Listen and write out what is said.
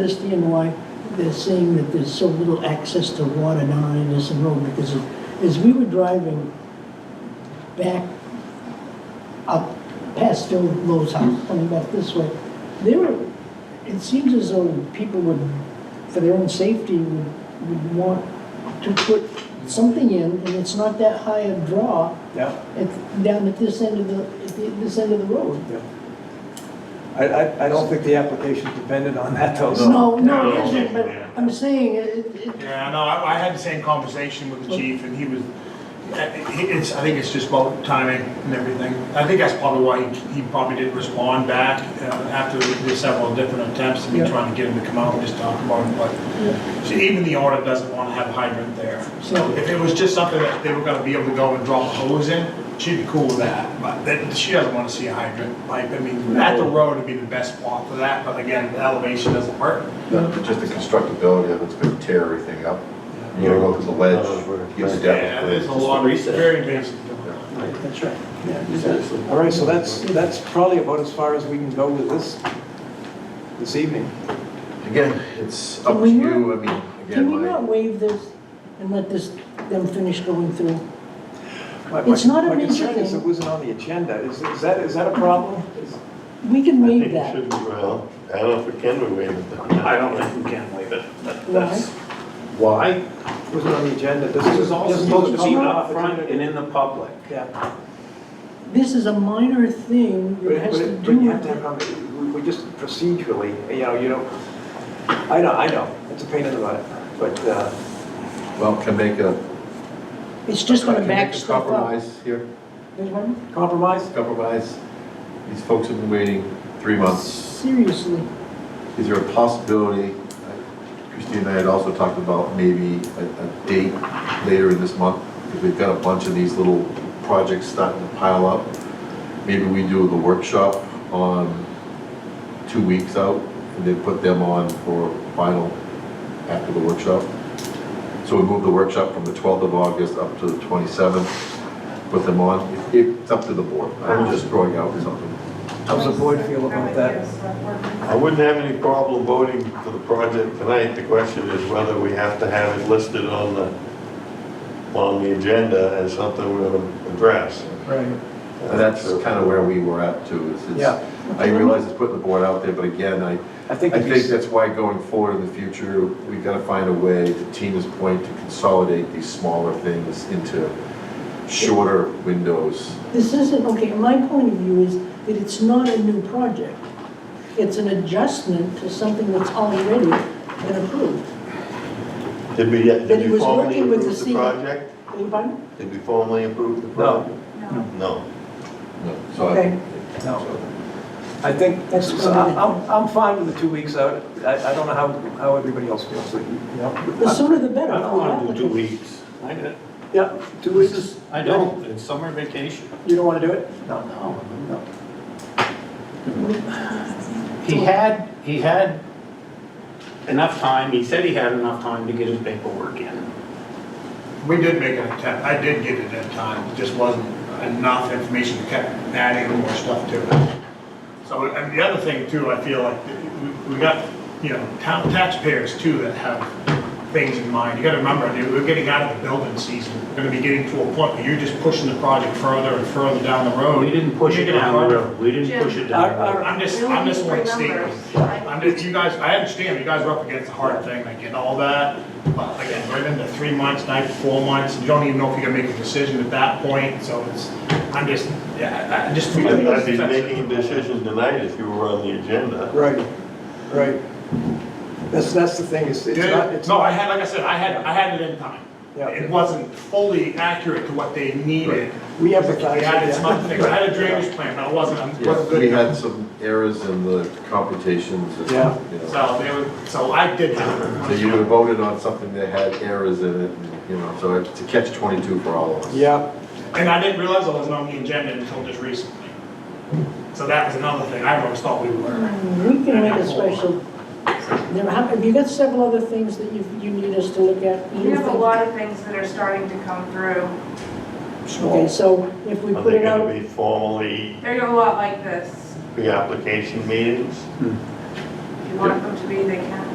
understand why they're saying that there's so little access to water down in this road, because as- as we were driving back up past Phil Lowe's house, coming back this way, there were, it seems as though people would, for their own safety, would, would want to put something in, and it's not that high a draw Yeah, at, down at this end of the, at the- this end of the road. yeah. I, I, I don't think the application's dependent on that though. so- No, no, No. it isn't, but Yeah. I'm saying, it, it, Yeah, no, I, I had the same conversation with the chief and he was, it's, I think it's just about timing and everything. I think that's probably why he, he probably didn't respond back uh, after the several different attempts to be Yeah. trying to get him to come out and just talk about it, but so even the order doesn't want to have hydrant there. So if it was just something that they were gonna be able to go and drop a hose in, she'd be cool with that, but then she doesn't want to see a hydrant pipe. I mean, at the road would be the best spot for that, but again, the elevation doesn't work. But just the constructability of it's gonna tear everything up. You gotta go to the ledge, get the Yeah, depth. there's a lot of, very basic. that's right. All right, so that's, that's probably about as far as we can go with this, this evening. Again, it's up Can to we you, I mean, Can we again, not my, waive this and let this, them finish going through? My- my- It's not a My major concern is thing. it wasn't on the agenda. Is, is that, is that a problem? Is- We can I think waive it that. should be, well, I don't know if it can be waived. I don't think we can waive it. That- Why? That's why. Wasn't on the agenda. This This is is all this is supposed to be public up front opportunity. and in the public. Yeah, This is a minor thing but, that has to but do but you have with to have, conver- we- we just procedurally, you know, you don't, I know, I know, it's a pain in the butt, but, uh, well, can make a. It's just gonna can make a back stuff up. Compromise here, Pardon? compromise? compromise. These folks have been waiting three months. Seriously, Is there a possibility, Christine and I had also talked about maybe a, a date later in this month, because we've got a bunch of these little projects starting to pile up. Maybe we do the workshop on two weeks out, and then put them on for final after the workshop. So we move the workshop from the 12th of August up to the 27th, put them on. It- It's up to the board. I'm just throwing out something. How's the board feel about that? I wouldn't have any problem voting for the project tonight. The question is whether we have to have it listed on the, on the agenda as something we're going to address. Right. And that's kind of where we were at too, is Yeah. it's, I realize it's putting the board out there, but again, I, I think, I it'd be think s- that's why going forward in the future, we've got to find a way, to Tina's point, to consolidate these smaller things into shorter windows. this isn't, okay, my point of view is that it's not a new project. It's an adjustment to something that's already been approved. Did we, get- But he did we was formally working with approve the the C- project? Anybody? Did we formally approve the No. project? No. No, So Okay. I, no. I think, That's so what I- I- I'm, I'm fine with the two weeks out. I, I don't know how, how everybody else feels, you know? The sooner the I better don't for the want to do two applicant. weeks. I don't- Yeah, two weeks, I don't, it's summer vacation. you don't want to do it? No. No. He had, he had enough time, he said he had enough time to get his paperwork in. We did make an attempt, I did get it at time, It just wasn't enough information, we kept adding more stuff to it. So, and the other thing too, I feel like, we- we got, you know, town taxpayers too that have things in mind. You gotta remember, dude, we're getting out of the building season, we're gonna be getting to a point where you're just pushing the project further and further down the road. We Oh, didn't push it You're gonna down the have- road, we didn't push it down the road. Our- our- I'm just, We only I'm just need one three statement. numbers. I'm just, you guys, I understand, you guys are up against a hard thing, I get all that, but again, we're into three months, nine to four months, you don't even know if you're gonna make a decision at that point, so it's, I'm just, yeah, I- I just. I'd be making a decision tonight if you were on the agenda. Right, right. That's, that's the thing, it's, it's not, Yeah, it's no, I not, had, like I said, I had, I had it in time. Yeah. It wasn't fully accurate to what they needed. we I empathize. had with some other that. things, I had a drainage plan, but it wasn't, it wasn't yeah, we good. had some errors in the computations and, you Yeah. know. So they were, so I did have. So you would have voted on something that had errors in it, and, you know, so it's a catch twenty-two for all of us. Yeah, And I didn't realize I wasn't on the agenda until just recently. So that was another thing, I always thought we were. We can make a special, Now, how- have you got several other things that you, you need us to look at? We have a lot of things that are starting to come through. Okay, so if we Are put they it out. gonna be formally They're a lot like this. pre-application meetings? If you want them to be, they can.